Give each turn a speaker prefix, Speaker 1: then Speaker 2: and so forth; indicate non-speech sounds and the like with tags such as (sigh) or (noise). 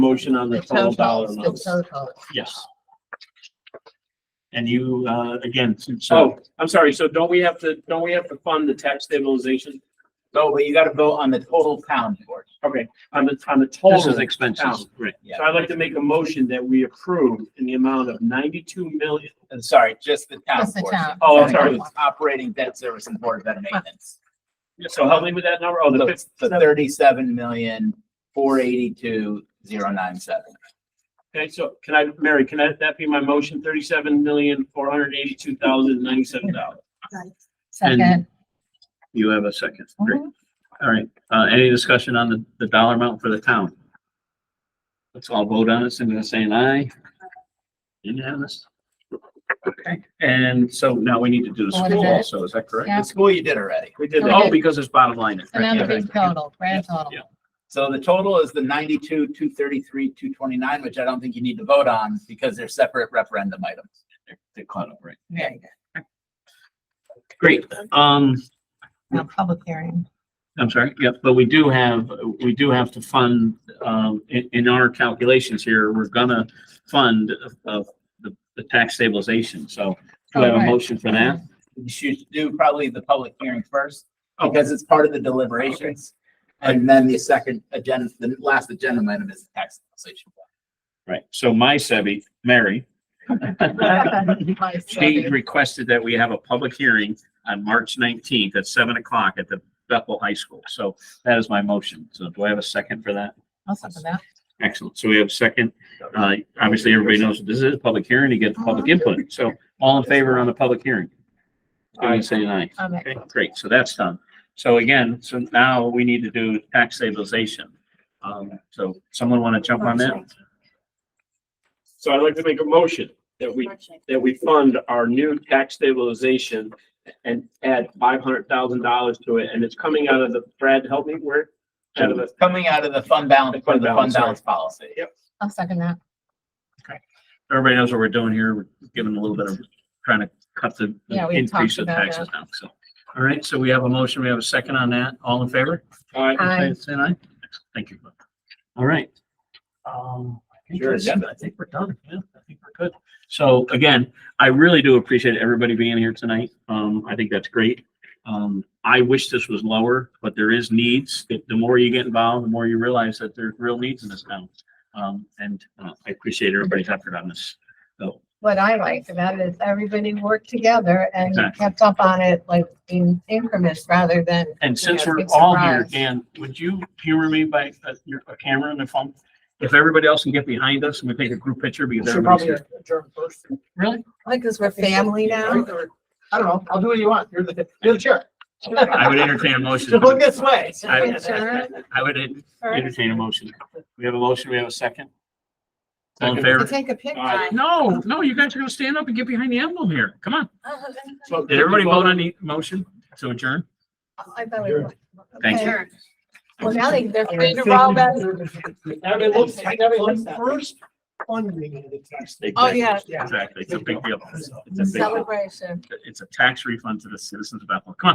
Speaker 1: Motion on the total dollar amount.
Speaker 2: The total.
Speaker 3: Yes. And you, uh, again, so
Speaker 1: Oh, I'm sorry. So don't we have to, don't we have to fund the tax stabilization?
Speaker 4: No, but you gotta vote on the total town board.
Speaker 1: Okay, on the, on the
Speaker 3: this is
Speaker 1: total.
Speaker 3: expenses, right?
Speaker 1: So I'd like to make a motion that we approve in the amount of ninety-two million.
Speaker 4: And sorry, just the town
Speaker 2: Just the
Speaker 4: board.
Speaker 2: town.
Speaker 1: Oh, I'm sorry.
Speaker 4: It's Operating debt service and board of ed maintenance.
Speaker 1: So help me with that number. Oh, the
Speaker 4: The
Speaker 1: fifth,
Speaker 4: thirty-seven million, four eighty-two, zero nine seven.
Speaker 1: okay, so can I, Mary, can I, that be my motion? Thirty-seven million, four hundred eighty-two thousand, ninety-seven dollars.
Speaker 2: Second. Mhm.
Speaker 3: You have a second. Great. All right. Uh, any discussion on the, the dollar amount for the town? Let's all vote on it. Cindy was saying aye. Unanimous. Okay, and so now we need to do the
Speaker 2: What is
Speaker 3: school
Speaker 2: it?
Speaker 3: also, is that correct?
Speaker 2: Yeah.
Speaker 4: The school you did already.
Speaker 1: We did
Speaker 3: Oh,
Speaker 1: that.
Speaker 3: because it's bottom line.
Speaker 2: And now the
Speaker 3: right?
Speaker 2: big total, grand
Speaker 3: Yeah,
Speaker 2: total.
Speaker 3: yeah.
Speaker 4: So the total is the ninety-two, two thirty-three, two twenty-nine, which I don't think you need to vote on because they're separate referendum items.
Speaker 3: They're- They're caught up, right?
Speaker 2: Very good.
Speaker 3: Great. Um,
Speaker 2: Now, public hearing.
Speaker 3: I'm sorry, yep, but we do have, we do have to fund, um, in, in our calculations here, we're gonna fund of the, the tax stabilization, so do I have a
Speaker 2: Alright.
Speaker 3: motion for that?
Speaker 4: You should do probably the public hearing first
Speaker 3: Oh.
Speaker 4: because it's part of the deliberations. And then the second agenda, the last agenda item is the tax legislation.
Speaker 3: Right, so my Sebi, Mary, she
Speaker 2: Second.
Speaker 3: requested that we have a public hearing on March nineteenth at seven o'clock at the Bethel High School, so that is my motion, so do I have a second for that?
Speaker 2: I'll second that.
Speaker 3: Excellent, so we have a second, uh, obviously, everybody knows this is a public hearing, you get the public input, so all in favor on the public hearing? I say aye.
Speaker 2: Um,
Speaker 3: Okay, great. So that's done. So again, so now we need to do tax stabilization. Um, so someone want to jump on that?
Speaker 1: So I'd like to make a motion that we, that we fund our new tax stabilization and add five hundred thousand dollars to it. And it's coming out of the, Brad, help me, where? Out of the,
Speaker 4: Coming out of the fund balance, for
Speaker 1: Fund
Speaker 4: the
Speaker 1: balance,
Speaker 4: fund
Speaker 1: sorry.
Speaker 4: balance policy.
Speaker 2: I'll second that.
Speaker 3: Everybody knows what we're doing here. We're giving a little bit of, trying to cut the the
Speaker 2: Yeah, we
Speaker 3: increase
Speaker 2: talked
Speaker 3: of
Speaker 2: about
Speaker 3: taxes now. So, all right. So we have a motion. We have a second on that. All in favor?
Speaker 1: all
Speaker 3: Uh,
Speaker 1: right,
Speaker 2: Aye.
Speaker 3: Say aye. Thank you. All right. Um, I think
Speaker 4: Your
Speaker 3: that's-
Speaker 4: agenda.
Speaker 3: I think we're done. Yeah, I think we're good. So again, I really do appreciate everybody being here tonight. Um, I think that's great. Um, I wish this was lower, but there is needs. The the more you get involved, the more you realize that there's real needs in this town. Um, and uh, I appreciate everybody's effort on this. So,
Speaker 2: What I liked about it is everybody worked together and
Speaker 3: Exactly.
Speaker 2: kept up on it like in increments rather than
Speaker 3: and since
Speaker 2: Yeah,
Speaker 3: we're
Speaker 2: big
Speaker 3: all here,
Speaker 2: surprise.
Speaker 3: Dan, would you humor me by a, your- a camera and a phone? If everybody else can get behind us and we take a group picture because
Speaker 5: Should
Speaker 3: everybody's
Speaker 5: probably
Speaker 3: here.
Speaker 5: adjourn first.
Speaker 3: Really?
Speaker 2: like because we're family now.
Speaker 5: I don't know. I'll do what you want. You're the, you're the chair.
Speaker 3: I would
Speaker 5: (laughs)
Speaker 3: entertain a motion.
Speaker 5: Just look this (laughs) way.
Speaker 3: I-
Speaker 2: Insurance,
Speaker 3: I would en-
Speaker 2: first.
Speaker 3: entertain a motion. We have a motion, we have a second? All in
Speaker 1: Second.
Speaker 2: To
Speaker 3: favor?
Speaker 2: take a picture.
Speaker 1: Aye.
Speaker 3: No, no, you guys are gonna stand up and get behind the emblem here. Come on.
Speaker 1: so-
Speaker 3: Did everybody vote on the motion to adjourn?
Speaker 2: I thought we would.
Speaker 3: Thank you.
Speaker 2: Okay. Well, now they, they're free to roll that.
Speaker 5: Everybody looks, everybody looks first funding of the tax.
Speaker 2: Oh, yeah.
Speaker 5: Yeah.
Speaker 3: Exactly, it's a big deal. It's a big, deal.
Speaker 2: Celebration.
Speaker 3: it's a tax refund to the citizens of Bethel. Come on.